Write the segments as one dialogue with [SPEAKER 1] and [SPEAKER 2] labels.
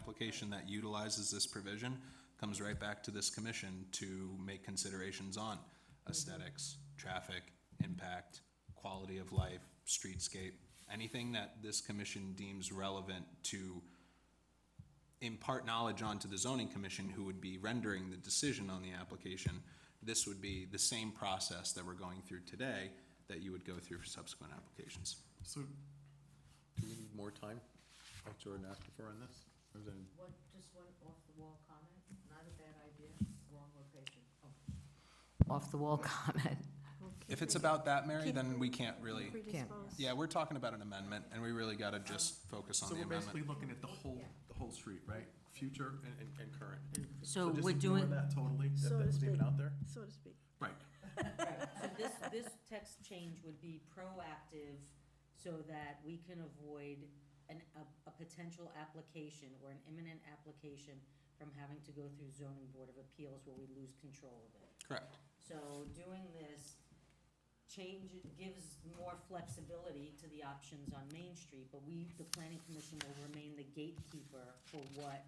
[SPEAKER 1] application that utilizes this provision comes right back to this commission to make considerations on aesthetics, traffic, impact, quality of life, streetscape, anything that this commission deems relevant to impart knowledge onto the zoning commission who would be rendering the decision on the application, this would be the same process that we're going through today that you would go through for subsequent applications.
[SPEAKER 2] So, do we need more time, like Jordan asked before on this? Or is it-
[SPEAKER 3] What, just one off-the-wall comment, not a bad idea, wrong location. Off-the-wall comment.
[SPEAKER 1] If it's about that, Mary, then we can't really,
[SPEAKER 3] Predisposed.
[SPEAKER 1] yeah, we're talking about an amendment and we really gotta just focus on
[SPEAKER 2] So
[SPEAKER 1] the
[SPEAKER 2] we're basically
[SPEAKER 1] amendment.
[SPEAKER 2] looking at the whole, the whole street, right? Future and, and, and current.
[SPEAKER 3] So
[SPEAKER 2] just
[SPEAKER 3] we're
[SPEAKER 2] ignore
[SPEAKER 3] doing,
[SPEAKER 2] That totally, that
[SPEAKER 4] So
[SPEAKER 2] that
[SPEAKER 4] to
[SPEAKER 2] was even
[SPEAKER 4] speak.
[SPEAKER 2] out there?
[SPEAKER 4] so to speak.
[SPEAKER 2] Right.
[SPEAKER 5] Right, so this, this text change would be proactive so that we can avoid an, a, a potential application or an imminent application from having to go through zoning board of appeals where we lose control of it.
[SPEAKER 1] Correct.
[SPEAKER 5] So doing this change, it gives more flexibility to the options on Main Street, but we, the planning commission will remain the gatekeeper for what,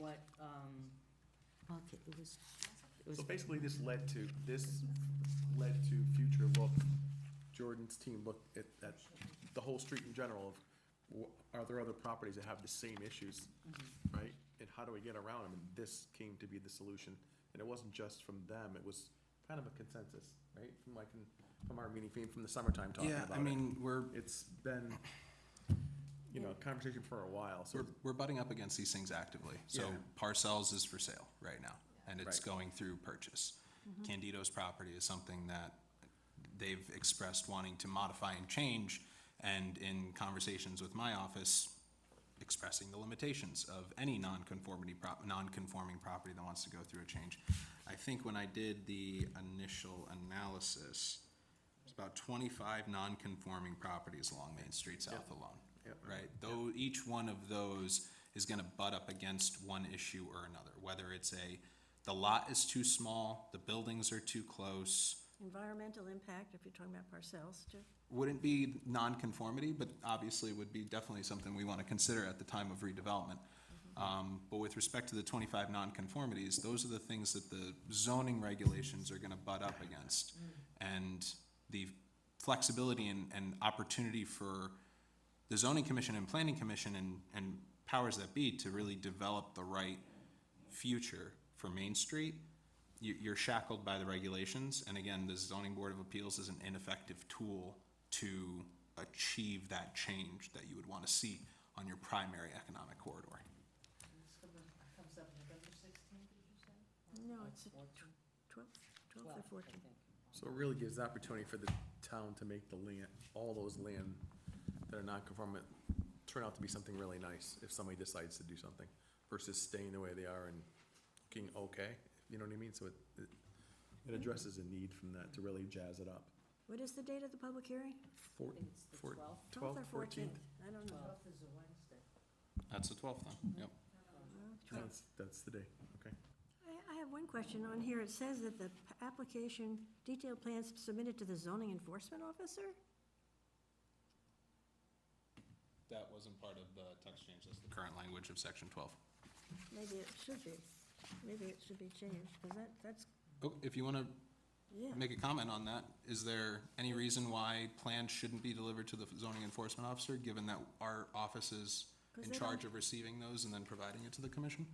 [SPEAKER 5] what, um,
[SPEAKER 3] okay, it was, it was,
[SPEAKER 2] So basically, this led to, this led to future look, Jordan's team looked at, at the whole street in general of, wh- are there other properties that have the same issues,
[SPEAKER 1] Mm-hmm.
[SPEAKER 2] right? And how do we get around them? And this came to be the solution. And it wasn't just from them, it was kind of a consensus, right? From like, in- from our meeting, from- from the summertime talking
[SPEAKER 1] Yeah,
[SPEAKER 2] about
[SPEAKER 1] I
[SPEAKER 2] it.
[SPEAKER 1] mean, we're,
[SPEAKER 2] It's been, you know, a conversation for a while, so
[SPEAKER 1] we're, we're butting up against these things actively. So
[SPEAKER 2] Yeah.
[SPEAKER 1] Parcells is for sale right now and it's
[SPEAKER 2] Right.
[SPEAKER 1] going through purchase. Candido's property is something that they've expressed wanting to modify and change. And in conversations with my office, expressing the limitations of any non-conformity prop, non-conforming property that wants to go through a change. I think when I did the initial analysis, it's about twenty-five non-conforming properties along Main Street South alone.
[SPEAKER 2] Yep.
[SPEAKER 1] Right, though, each one of those is gonna butt up against one issue or another, whether it's a, the lot is too small, the buildings are too close,
[SPEAKER 4] Environmental impact, if you're talking about parcels, too.
[SPEAKER 1] wouldn't be nonconformity, but obviously would be definitely something we want to consider at the time of redevelopment. Um, But with respect to the 25 nonconformities, those are the things that the zoning regulations are going to butt up against. And the flexibility and, and opportunity for the zoning commission and planning commission and, and powers that be to really develop the right future for Main Street, you, you're shackled by the regulations. And again, the zoning board of appeals is an ineffective tool to achieve that change that you would want to see on your primary economic corridor.
[SPEAKER 3] this comes- comes up November sixteenth, did you say?
[SPEAKER 4] No, it's a tw-
[SPEAKER 5] Fourteen?
[SPEAKER 4] 12, 12
[SPEAKER 5] Twelve,
[SPEAKER 4] or
[SPEAKER 5] I
[SPEAKER 4] 14.
[SPEAKER 5] think.
[SPEAKER 2] So it really gives the opportunity for the town to make the land, all those land that are non-conformant, turn out to be something really nice if somebody decides to do something, versus staying the way they are and looking okay, you know what I mean? So it, it- it addresses a need from that to really jazz it up.
[SPEAKER 4] What is the date of the public hearing?
[SPEAKER 2] Four,
[SPEAKER 5] I think it's the
[SPEAKER 2] four,
[SPEAKER 5] 12th.
[SPEAKER 2] twelve,
[SPEAKER 4] 12th or
[SPEAKER 2] fourteenth?
[SPEAKER 4] I don't know.
[SPEAKER 3] Twelfth is a Wednesday.
[SPEAKER 1] That's the twelfth then, yep.
[SPEAKER 4] Well, 12th.
[SPEAKER 2] That's, that's the day, okay.
[SPEAKER 4] I, I have one question on here. It says that the p- application, detailed plans submitted to the zoning enforcement officer?
[SPEAKER 1] That wasn't part of the text change, that's the current language of section twelve.
[SPEAKER 4] Maybe it should be. Maybe it should be changed, because that, that's,
[SPEAKER 1] Oh, if you want to
[SPEAKER 4] yeah.
[SPEAKER 1] make a comment on that, is there any reason why plans shouldn't be delivered to the zoning enforcement officer, given that our office is
[SPEAKER 4] Because
[SPEAKER 1] in
[SPEAKER 4] they
[SPEAKER 1] charge of receiving those and then providing it to the commission?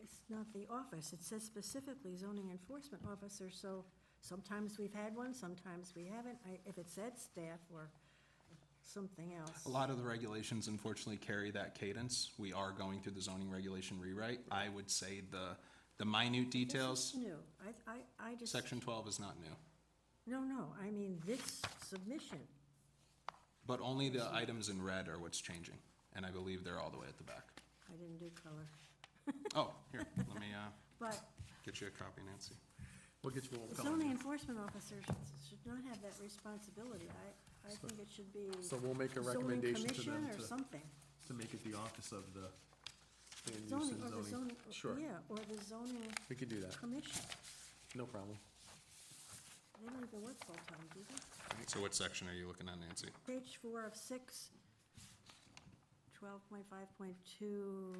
[SPEAKER 4] It's not the office, it says specifically zoning enforcement officer, so sometimes we've had one, sometimes we haven't. I- If it said staff or something else.
[SPEAKER 1] A lot of the regulations unfortunately carry that cadence. We are going through the zoning regulation rewrite. I would say the, the minute
[SPEAKER 4] This is
[SPEAKER 1] details,
[SPEAKER 4] New, I, I, I just.
[SPEAKER 1] section twelve is not new.
[SPEAKER 4] No, no, I mean this submission.
[SPEAKER 1] But only the items in red are what's changing, and I believe they're all the way at the back.
[SPEAKER 4] I didn't do color,
[SPEAKER 1] Oh, here, let me, uh,
[SPEAKER 4] but
[SPEAKER 1] get you a copy, Nancy.
[SPEAKER 2] We'll get you all
[SPEAKER 4] the zoning enforcement officer should- should not have that responsibility. I, I think it should be
[SPEAKER 2] So we'll make a
[SPEAKER 4] zoning
[SPEAKER 2] recommendation to
[SPEAKER 4] commission
[SPEAKER 2] them
[SPEAKER 4] or
[SPEAKER 2] to,
[SPEAKER 4] something.
[SPEAKER 2] to make it the office of the land use
[SPEAKER 4] Zoning, or
[SPEAKER 2] and
[SPEAKER 4] the
[SPEAKER 2] zoning.
[SPEAKER 4] zoning,
[SPEAKER 2] Sure,
[SPEAKER 4] yeah, or the zoning
[SPEAKER 2] we can do that,
[SPEAKER 4] commission.
[SPEAKER 2] no problem.
[SPEAKER 4] They don't even work full-time, do they?
[SPEAKER 1] So what section are you looking at, Nancy?
[SPEAKER 4] Page four of six, 12 twelve point five point two